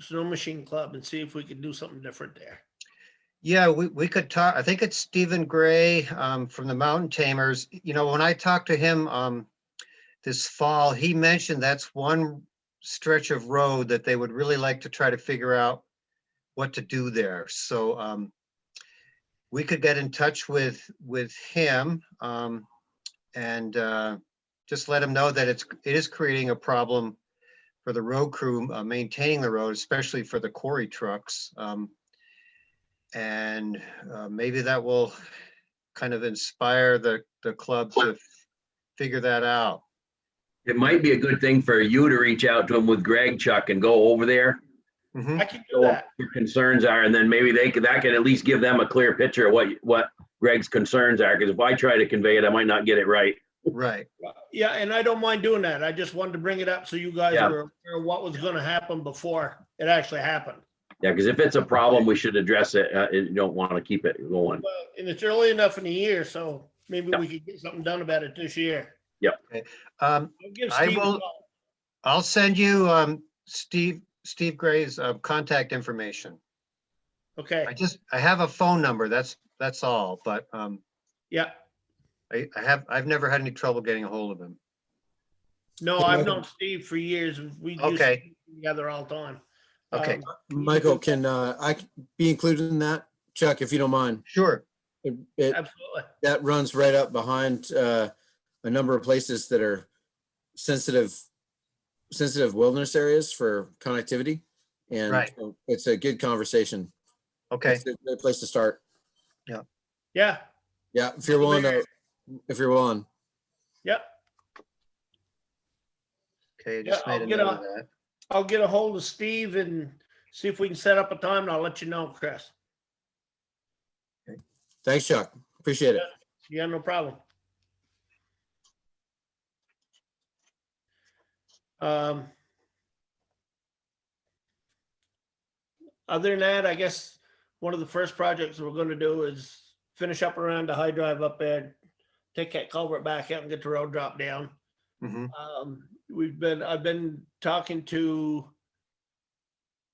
Snow um, Machine Club and see if we can do something different there. Yeah, we, we could talk, I think it's Stephen Gray um, from the Mountain Tamers. You know, when I talked to him um, this fall, he mentioned that's one stretch of road that they would really like to try to figure out what to do there. So um, we could get in touch with, with him um, and uh, just let him know that it's, it is creating a problem for the road crew uh, maintaining the road, especially for the quarry trucks. Um, and uh, maybe that will kind of inspire the, the club to figure that out. It might be a good thing for you to reach out to him with Greg Chuck and go over there. Mhm. I can do Go that. what your concerns are, and then maybe they could, that can at least give them a clear picture of what, what Greg's concerns are, because if I try to convey it, I might not get it right. Right, Yeah, and I don't mind doing that. I just wanted to bring it up so you guys Yeah. were aware of what was gonna happen before it actually happened. Yeah, because if it's a problem, we should address it. Uh, you don't want to keep it going. Well, And it's early enough in the year, so maybe Yeah. we could get something done about it this year. um, I'll give I Steve a will- call. I'll send you, um, Steve, Steve Gray's, uh, contact information. Okay, I just, I have a phone number, that's, that's all, but, um, yeah. I, I have, I've never had any trouble getting a hold of him. No, I've known Steve for years. We used to Okay. be together all the time. Okay. Um, Michael, can uh, I be included in that? Chuck, if you don't mind. Sure, It- it- Absolutely. That runs right up behind uh, a number of places that are sensitive, sensitive wilderness areas for connectivity. And Right. so it's a good conversation. okay, It's a Good place to start. Yeah, Yeah, if you're willing to, if you're willing. yep. okay, I just Yeah, I'll made a get note of on- that. I'll get a hold of Steve and see if we can set up a time and I'll let you know, Chris. Thanks, Chuck. Appreciate it. Yeah, no problem. Um. Other than that, I guess one of the first projects we're gonna do is finish up around the high drive up there. Take that culvert back out and get the road dropped down. Mhm. Um, we've been, I've been talking to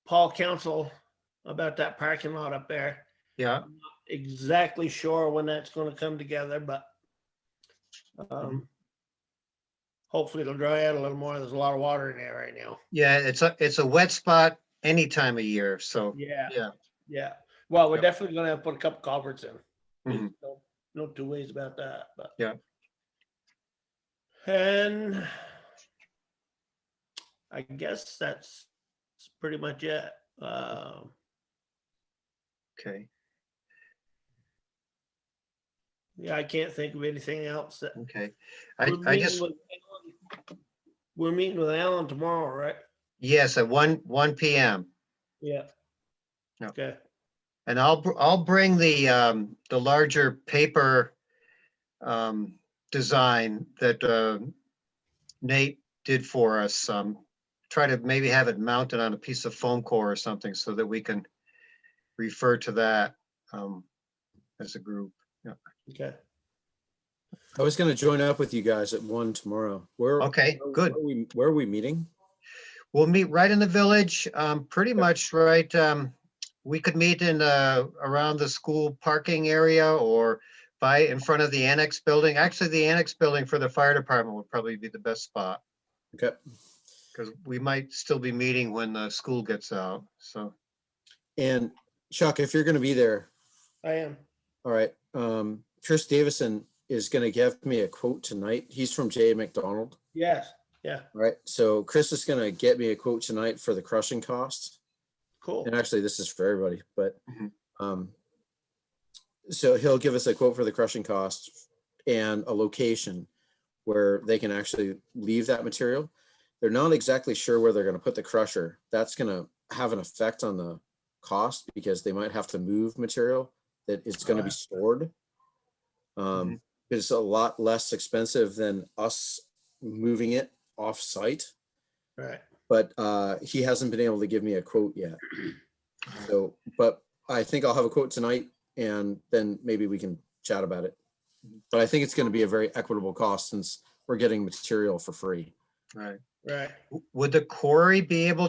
Paul Council about that parking lot up there Yeah, exactly sure when that's gonna come together, but um, hopefully it'll dry out a little more. There's a lot of water in there right now. yeah, it's a, it's a wet spot any time of year, so, Yeah. Yeah. Yeah. Well, we're Yep. definitely gonna have to put a couple culverts in. There's Mhm. No no two ways about that, but. Yeah. And I guess that's that's pretty much it. Um, okay, yeah, I can't think of anything else that okay. I, We're I meeting just, with Alan- We're meeting with Alan tomorrow, right? yes, at one, one PM. Yeah. Yeah. Okay, And I'll, br- I'll bring the, um, the larger paper, um, design that, uh, Nate did for us. Um, try to maybe have it mounted on a piece of foam core or something so that we can refer to that, um, as a group. okay. I was going to join up with you guys at one tomorrow. Where? Okay, where- good. where are we- Where are we meeting? We'll meet right in the village, um, pretty much right, um, we could meet in, uh, around the school parking area or by, in front of the annex building. Actually, the annex building for the fire department would probably be the best spot. Okay. Because we might still be meeting when the school gets out, so. And Chuck, if you're going to be there, I am. All right. Um, Chris Davison is going to give me a quote tonight. He's from J. A. McDonald. Yes, yeah, All right. So Chris is going to get me a quote tonight for the crushing cost. cool. And actually, this is for everybody, but Mhm. um, so he'll give us a quote for the crushing cost and a location where they can actually leave that material. They're not exactly sure where they're going to put the crusher. That's going to have an effect on the cost because they might have to move material that is going to be stored. Um, it's a lot less expensive than us moving it off site Right, but uh, he hasn't been able to give me a quote yet. So, but I think I'll have a quote tonight and then maybe we can chat about it. But I think it's going to be a very equitable cost since we're getting material for free. Right. right. Would the quarry be able